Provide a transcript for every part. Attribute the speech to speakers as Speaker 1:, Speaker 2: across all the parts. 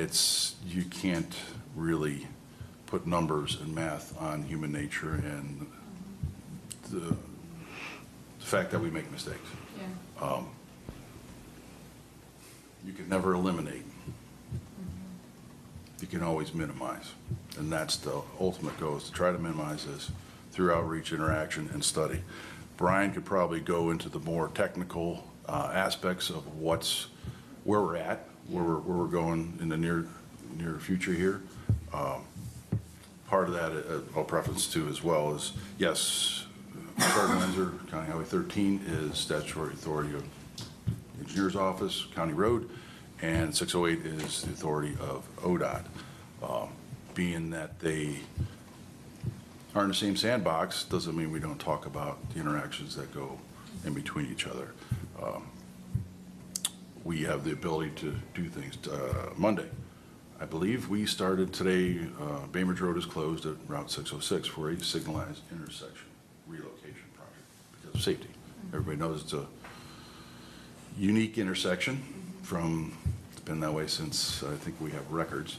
Speaker 1: it's, you can't really put numbers and math on human nature and the the fact that we make mistakes.
Speaker 2: Yeah.
Speaker 1: You can never eliminate. You can always minimize. And that's the ultimate goal, is to try to minimize this through outreach, interaction, and study. Brian could probably go into the more technical uh, aspects of what's, where we're at, where we're, where we're going in the near, near future here. Um, Part of that, uh, I'll preference to as well, is, yes, Fred Windsor, County Highway 13 is statutory authority of Engineers Office, County Road, and 608 is the authority of ODOT. Um, Being that they are in the same sandbox, doesn't mean we don't talk about the interactions that go in between each other. Um, We have the ability to do things. Uh, Monday, I believe we started today, uh, Bainbridge Road is closed at Route 606 for a signalized intersection relocation project because of safety. Everybody knows it's a unique intersection from, it's been that way since, I think we have records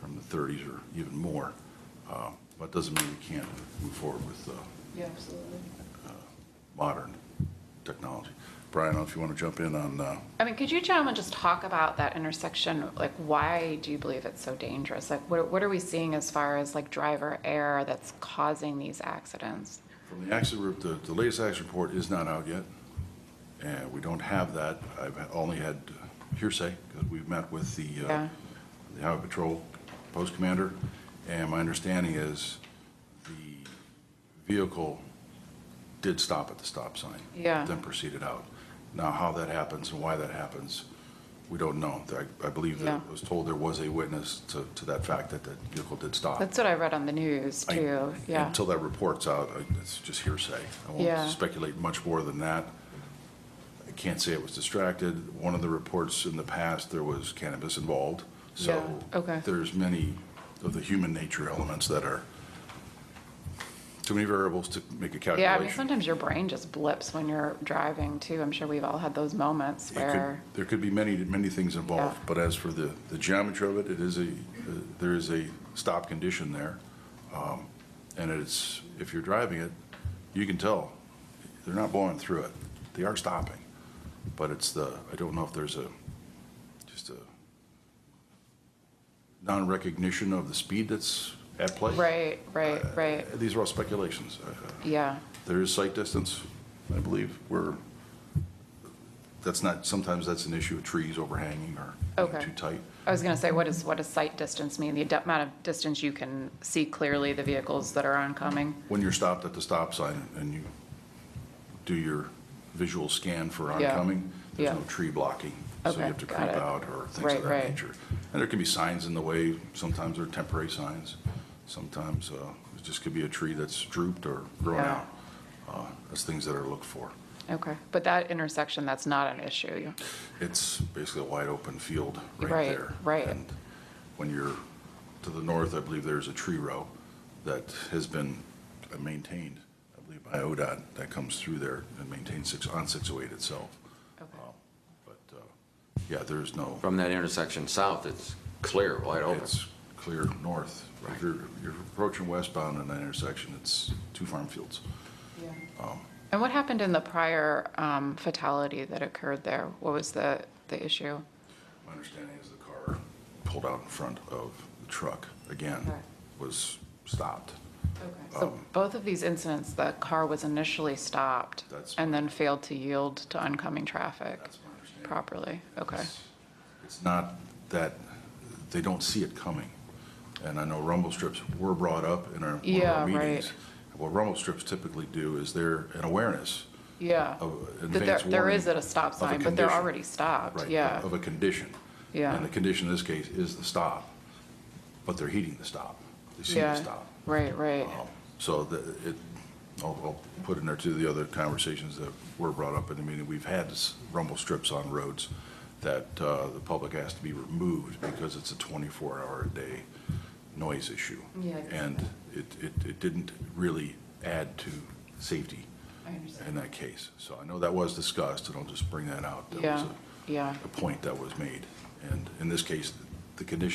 Speaker 1: from the 30s or even more. Uh, But doesn't mean we can't move forward with uh,
Speaker 2: Yeah, absolutely.
Speaker 1: modern technology. Brian, I don't know if you want to jump in on, uh,
Speaker 3: I mean, could you gentlemen just talk about that intersection? Like, why do you believe it's so dangerous? Like, what, what are we seeing as far as like driver error that's causing these accidents?
Speaker 1: from the accident group, the, the latest action report is not out yet. And we don't have that. I've only had hearsay because we've met with the, uh,
Speaker 3: Yeah.
Speaker 1: the Highway Patrol Post Commander. And my understanding is the vehicle did stop at the stop sign.
Speaker 3: Yeah.
Speaker 1: Then proceeded out. Now, how that happens and why that happens, we don't know. I, I believe that I
Speaker 3: Yeah.
Speaker 1: was told there was a witness to, to that fact that that vehicle did stop.
Speaker 3: That's what I read on the news
Speaker 1: I-
Speaker 3: too. Yeah.
Speaker 1: Until that report's out, I- it's just hearsay. I
Speaker 3: Yeah.
Speaker 1: won't speculate much more than that. I can't say it was distracted. One of the reports in the past, there was cannabis involved. So
Speaker 3: Yeah, okay.
Speaker 1: there's many of the human nature elements that are too many variables to make a
Speaker 3: Yeah. I mean,
Speaker 1: calculation.
Speaker 3: sometimes your brain just blips when you're driving too. I'm sure we've all had those moments
Speaker 1: It could-
Speaker 3: where,
Speaker 1: There could be many, many things involved,
Speaker 3: Yeah.
Speaker 1: but as for the, the geometry of it, it is a, uh, there is a stop condition there. Um, And it's, if you're driving it, you can tell, they're not blowing through it, they are stopping. But it's the, I don't know if there's a, just a non-recognition of the speed that's at play.
Speaker 3: right, right, right.
Speaker 1: Uh, These are all speculations. Uh, uh,
Speaker 3: Yeah.
Speaker 1: there is sight distance, I believe, where, that's not, sometimes that's an issue with trees overhanging or you know,
Speaker 3: Okay.
Speaker 1: too tight.
Speaker 3: I was going to say, what is, what does sight distance mean? The ad- amount of distance you can see clearly the vehicles that are oncoming?
Speaker 1: When you're stopped at the stop sign and you do your visual scan for
Speaker 3: Yeah.
Speaker 1: oncoming, there's
Speaker 3: Yeah.
Speaker 1: no tree blocking. So you
Speaker 3: Okay,
Speaker 1: have to
Speaker 3: got
Speaker 1: creep
Speaker 3: it.
Speaker 1: out or things
Speaker 3: Right,
Speaker 1: of that
Speaker 3: right.
Speaker 1: nature. And there can be signs in the way, sometimes they're temporary signs. Sometimes uh, it just could be a tree that's drooped or grown
Speaker 3: Yeah.
Speaker 1: out. Uh, That's things that are looked for.
Speaker 3: Okay. But that intersection, that's not an issue.
Speaker 1: It's basically a wide open field right
Speaker 3: Right,
Speaker 1: there.
Speaker 3: right.
Speaker 1: And when you're to the north, I believe there's a tree row that has been maintained, I believe by ODOT, that comes through there and maintains six, on 608 itself.
Speaker 3: Okay.
Speaker 1: Um, But, uh, yeah, there's no,
Speaker 4: From that intersection south, it's clear, wide open.
Speaker 1: it's clear north. If you're, you're approaching westbound in that intersection, it's two farm fields. Oh.
Speaker 3: And what happened in the prior um, fatality that occurred there? What was the, the issue?
Speaker 1: My understanding is the car pulled out in front of the truck again,
Speaker 3: Okay.
Speaker 1: was stopped.
Speaker 3: So
Speaker 1: Um,
Speaker 3: both of these incidents, the car was initially stopped
Speaker 1: That's-
Speaker 3: and then failed to yield to oncoming traffic
Speaker 1: That's my understanding.
Speaker 3: properly? Okay,
Speaker 1: It's- It's not that, they don't see it coming. And I know rumble strips were brought up in our, one of
Speaker 3: Yeah,
Speaker 1: our
Speaker 3: right.
Speaker 1: meetings. What rumble strips typically do is they're an awareness,
Speaker 3: yeah.
Speaker 1: Of
Speaker 3: That there-
Speaker 1: advance
Speaker 3: There is
Speaker 1: warning
Speaker 3: at a
Speaker 1: of
Speaker 3: stop
Speaker 1: a
Speaker 3: sign, but they're
Speaker 1: condition.
Speaker 3: already stopped,
Speaker 1: right?
Speaker 3: Uh, yeah.
Speaker 1: Of a condition.
Speaker 3: Yeah.
Speaker 1: And the condition in this case is the stop, but they're heeding the stop. They see the
Speaker 3: Yeah.
Speaker 1: stop.
Speaker 3: Right, right,
Speaker 1: Um, So the, it, I'll, I'll put in there too, the other conversations that were brought up in the meeting, we've had s- rumble strips on roads that, uh, the public has to be removed because it's a twenty-four hour a day noise issue.
Speaker 3: Yeah.
Speaker 1: And it, it, it didn't really add to safety
Speaker 3: I understand.
Speaker 1: in that case. So I know that was discussed, and I'll just bring that out. That was
Speaker 3: yeah,
Speaker 1: a-
Speaker 3: yeah.
Speaker 1: A point that was made, and in this case, the condition